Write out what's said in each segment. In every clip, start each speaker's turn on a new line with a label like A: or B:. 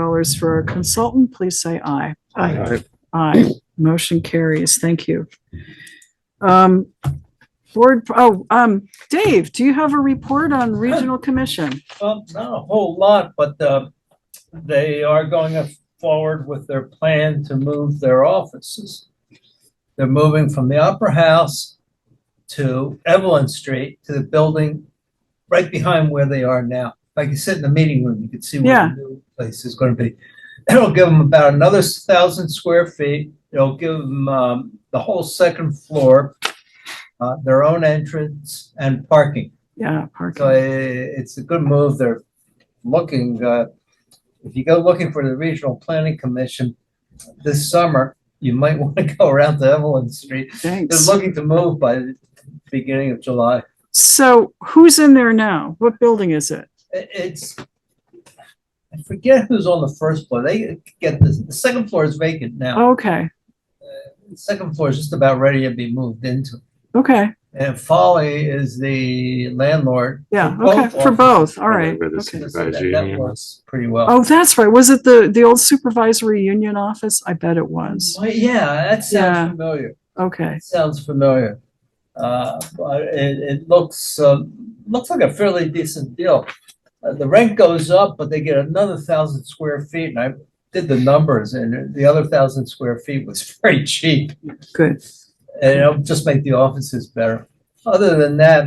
A: hours for our consultant, please say aye.
B: Aye.
A: Aye. Motion carries. Thank you. Um, board, oh, um, Dave, do you have a report on regional commission?
C: Well, not a whole lot, but uh, they are going forward with their plan to move their offices. They're moving from the Opera House to Evelyn Street to the building right behind where they are now. Like you sit in the meeting room, you can see where
A: Yeah.
C: the new place is going to be. It'll give them about another thousand square feet. It'll give them um, the whole second floor, uh, their own entrance and parking.
A: Yeah,
C: So
A: parking.
C: i- it's a good move. They're looking, uh, if you go looking for the Regional Planning Commission this summer, you might want to go around to Evelyn Street.
A: Thanks.
C: They're looking to move by the beginning of July.
A: So who's in there now? What building is it?
C: I- It's, I forget who's on the first floor. They get this, the second floor is vacant now.
A: Okay,
C: The Second floor is just about ready to be moved into.
A: okay.
C: And Folly is the landlord.
A: Yeah,
C: For
A: okay,
C: both
A: for both. All right.
B: Remember the
A: Okay.
C: So that
B: supervisory
C: that
B: union?
C: works Pretty well.
A: Oh, that's right. Was it the, the old supervisory union office? I bet it was.
C: Well, yeah, that
A: Yeah.
C: sounds familiar.
A: Okay.
C: It sounds familiar. Uh, but it, it looks, um, looks like a fairly decent deal. Uh, the rent goes up, but they get another thousand square feet, and I did the numbers, and the other thousand square feet was very cheap.
A: Good.
C: And it'll just make the offices better. Other than that,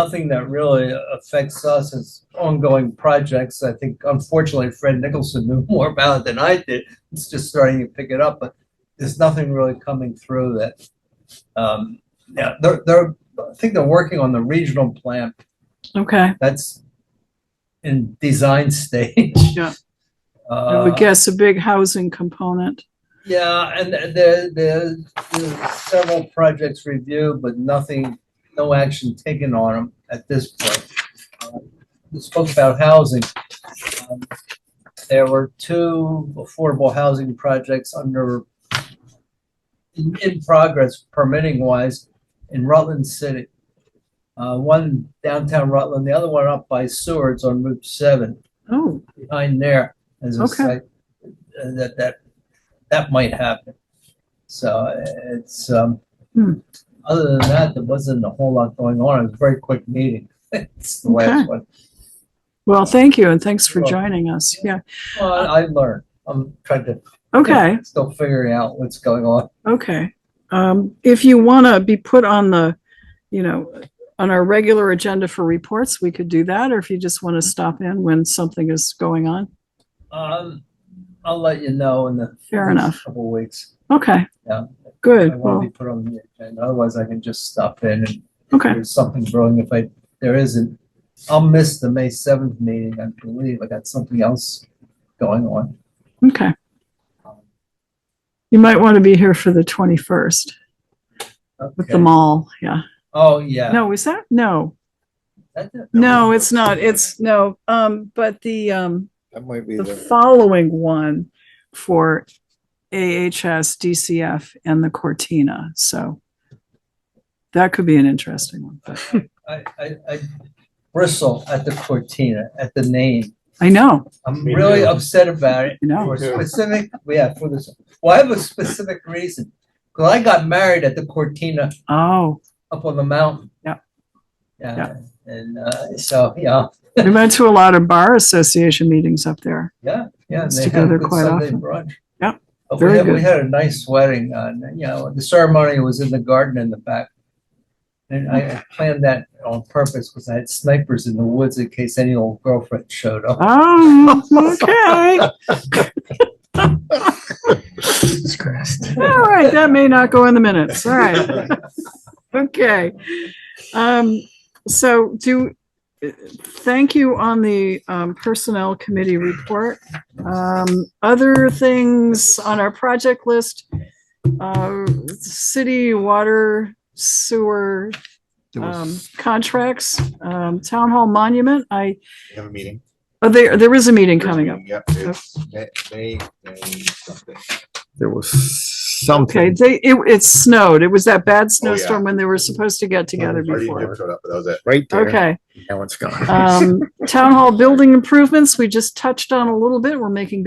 C: nothing that really affects us is ongoing projects. I think unfortunately Fred Nicholson knew more about it than I did. It's just starting to pick it up, but there's nothing really coming through that. Um, yeah, they're, they're, I think they're working on the regional plan.
A: Okay.
C: That's in design stage.
A: Yeah. I
C: Uh,
A: would guess a big housing component.
C: Yeah, and th- there, there, there's several projects reviewed, but nothing, no action taken on them at this point. Uh, We spoke about housing. Um, There were two affordable housing projects under, in, in progress permitting wise in Rutland City. Uh, one downtown Rutland, the other one up by Seward's on Route seven
A: Oh,
C: behind there as a
A: Okay.
C: site uh, that that that might happen. So uh, it's um,
A: Hmm.
C: other than that, there wasn't a whole lot going on. It was a very quick meeting. it's the last
A: Okay.
C: one.
A: well, thank you. And thanks for
C: You're welcome.
A: joining us. Yeah.
C: Well, I, I learned. I'm trying to
A: Okay.
C: still figuring out what's going on.
A: Okay. Um, if you want to be put on the, you know, on our regular agenda for reports, we could do that. Or if you just want to stop in when something is going on.
C: Um, I'll let you know in the
A: Fair
C: next
A: enough.
C: couple of weeks.
A: Okay.
C: Yeah. I
A: Good.
C: want
A: Well,
C: to be put on the agenda. Otherwise, I can just stop in and
A: okay.
C: there's something growing. If I, there isn't, I'll miss the May seventh meeting, I believe. I got something else going on.
A: Okay. You might want to be here for the 21st with the
C: Okay.
A: mall. Yeah.
C: Oh, yeah.
A: No, is that? No,
C: That- that-
A: no, it's not. It's no. Um, but the, um,
D: That might be
A: the
D: the,
A: following one for AHS, DCF and the Cortina. So that could be an interesting one. but-
C: I, I, I bristle at the Cortina, at the name.
A: I know,
C: I'm
B: Me
C: really
B: too.
C: upset about it.
A: I know.
C: For
B: too.
C: specific, yeah, for this, well, I have a specific reason. Cause I got married at the Cortina
A: Oh,
C: up on the mountain.
A: Yeah.
C: Yeah,
A: Yeah.
C: and, uh, so, yeah,
A: we went to a lot of bar association meetings up there.
C: Yeah, yeah. and
A: It's
C: they had a
A: together
C: good
A: quite
C: Sunday
A: often.
C: brunch.
A: Yeah,
C: But we
A: very
C: had, we
A: good.
C: had a nice wedding, uh, and, you know, the ceremony was in the garden in the back. And I I planned that on purpose because I had snipers in the woods in case any old girlfriend showed up.
A: Oh, okay.
D: Jesus Christ.
A: All right, that may not go in the minutes. All right. Okay. Um, so do, thank you on the um, Personnel Committee report. Um, other things on our project list, uh, city water sewer
D: There
A: um,
D: was,
A: contracts, um, town hall monument. I,
D: we have a meeting.
A: oh, there, there is a meeting coming up.
D: Yep, it's May, May, May something. There was
A: Okay,
D: something.
A: they, it, it snowed. It was that bad snowstorm when they were supposed to get together
D: Already
A: before.
D: showed up, but that was it. Right there.
A: Okay,
D: Now it's gone.
A: um, town hall building improvements, we just touched on a little bit. We're making good